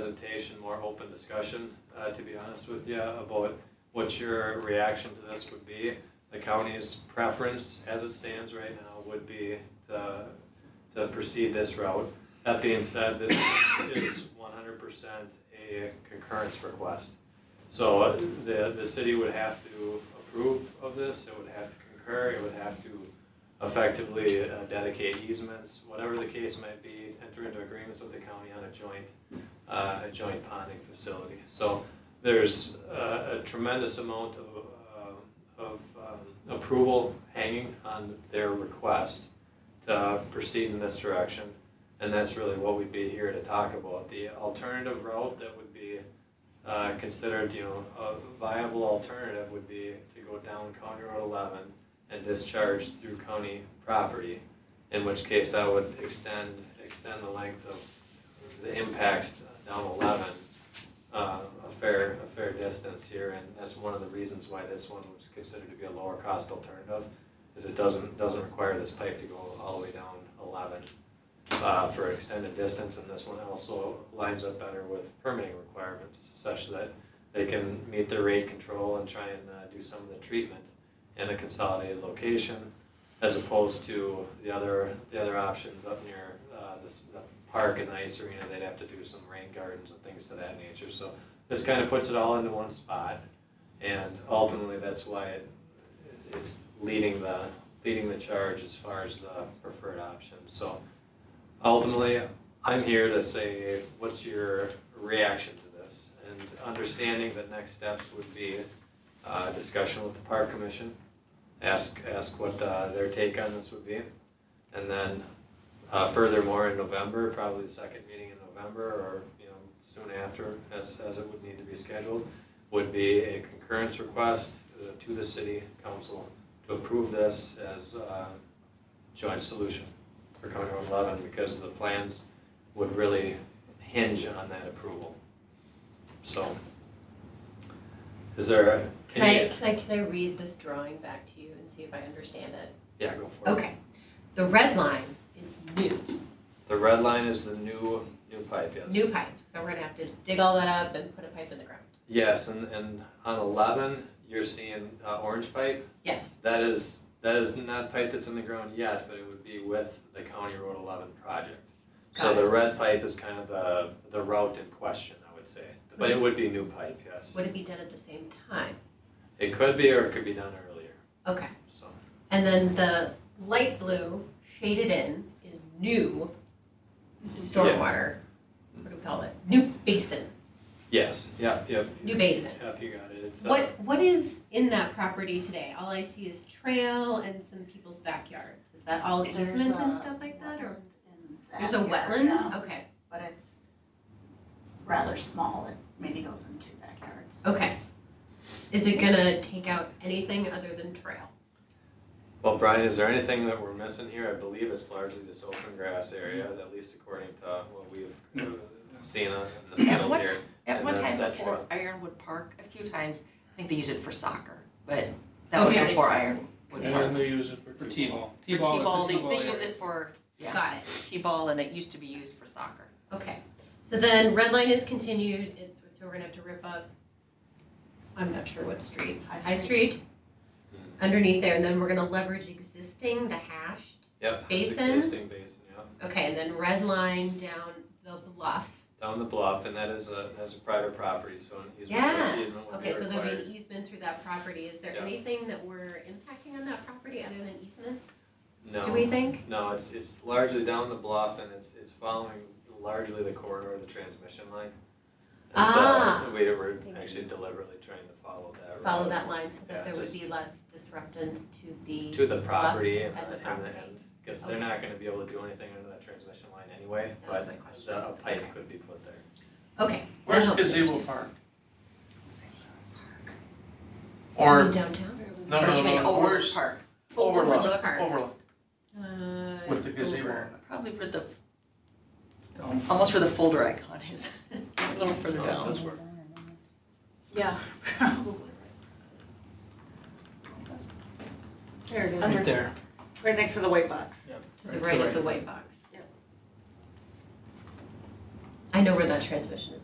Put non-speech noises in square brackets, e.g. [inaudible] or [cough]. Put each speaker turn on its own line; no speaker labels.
presentation, more open discussion, uh, to be honest with you, about what your reaction to this would be. The county's preference, as it stands right now, would be to, to proceed this route. That being said, this is one hundred percent a concurrence request. So uh, the, the city would have to approve of this, it would have to concur, it would have to effectively uh, dedicate easements, whatever the case might be, enter into agreements with the county on a joint, uh, a joint ponding facility. So there's uh, a tremendous amount of, uh, of um, approval hanging on their request to proceed in this direction. And that's really what we'd be here to talk about. The alternative route that would be uh, considered, you know, a viable alternative would be to go down County Road 11 and discharge through county property, in which case that would extend, extend the length of the impacts down 11 uh, a fair, a fair distance here, and that's one of the reasons why this one was considered to be a lower cost alternative, is it doesn't, doesn't require this pipe to go all the way down 11 uh, for an extended distance, and this one also lines up better with permitting requirements such that they can meet their rate control and try and uh, do some of the treatment in a consolidated location, as opposed to the other, the other options up near uh, this, the park and the ice arena, they'd have to do some rain gardens and things to that nature. So this kind of puts it all into one spot, and ultimately, that's why it, it's leading the, leading the charge as far as the preferred option. So ultimately, I'm here to say, what's your reaction to this? And understanding that next steps would be uh, discussion with the park commission, ask, ask what uh, their take on this would be. And then uh, furthermore, in November, probably the second meeting in November or, you know, soon after, as, as it would need to be scheduled, would be a concurrence request uh, to the city council to approve this as a joint solution for County Road 11 because the plans would really hinge on that approval. So, is there, a-
Can I,
can you?
can I, can I read this drawing back to you and see if I understand it?
Yeah, go for it.
Okay, the red line is new,
The red line is the new, new pipe, yes.
new pipe, so we're gonna have to dig all that up and put a pipe in the ground.
Yes, and, and on 11, you're seeing uh, orange pipe.
Yes,
That is, that is not pipe that's in the ground yet, but it would be with the County Road 11 project. So
Got it.
the red pipe is kind of the, the route in question, I would say. But it would be new pipe, yes.
would it be done at the same time?
It could be, or it could be done earlier,
Okay,
so.
and then the light blue shaded in is new stormwater, what do we call it? New basin,
Yes, yep, yep.
new basin.
Yep, you got it. It's, uh,
What, what is in that property today? All I see is trail and some people's backyards. Is that all
There's
easement and
a
stuff like that, or?
wetland in
There's a
that
wetland?
area,
Okay,
But it's rather small, it maybe goes in two backyards.
okay. Is it gonna take out anything other than trail?
Well, Brian, is there anything that we're missing here? I believe it's largely just open grass area, at least according to what we've uh, seen on in the
Yeah,
field
what-
here.
At
And
one
then
time
that
before
trail.
Ironwood Park, a few times, I think they used it for soccer, but that was
Okay.
before Ironwood
And then
Park.
they use it for
For
T-ball.
T-ball.
it's
For
a
T-ball, they,
T-ball
they use
area.
it for, yeah,
Got it,
T-ball, and it used to be used for soccer.
okay. So then red line is continued, it- so we're gonna have to rip up, I'm not sure what street, High Street?
Mhm.
Underneath there, and then we're gonna leverage existing, the hashed,
Yep. it's
Basin?
Existing basin, yeah.
okay, and then red line down the bluff.
Down the bluff, and that is a, that's a private property, so an easement,
Yeah.
easement would be
Okay, so there'll be
required.
an easement through that property. Is there
Yeah.
anything that we're impacting on that property other than easement, do we
No,
think?
no, it's, it's largely down the bluff and it's, it's following largely the corridor of the transmission line. And
Ah.
so we were actually deliberately trying to follow that.
Follow
route
that line so
Yeah,
that there would
just-
be less disruptance to the.
To the property and
and
the,
the
and the
property.
end. Because they're
Okay.
not gonna be able to do anything under that transmission line anyway,
That was
but
my question.
the
uh,
a
Okay.
pipe could be put there.
Okay.
Where's
that helps.
gazebo park?
In
Or,
Downtown?
no,
Or
no,
between
no,
Overlook
where's
Park,
Overlook
overlook,
Park.
overlook,
Uh,
with the gazebo.
over.
probably where the,
Um,
almost where the folder icon is, [laughs] a little further
Oh,
down.
that's where-
Yeah. probably. There it
Right
is,
there.
right next to the white box.
To the right of the white box. I know where that transmission is.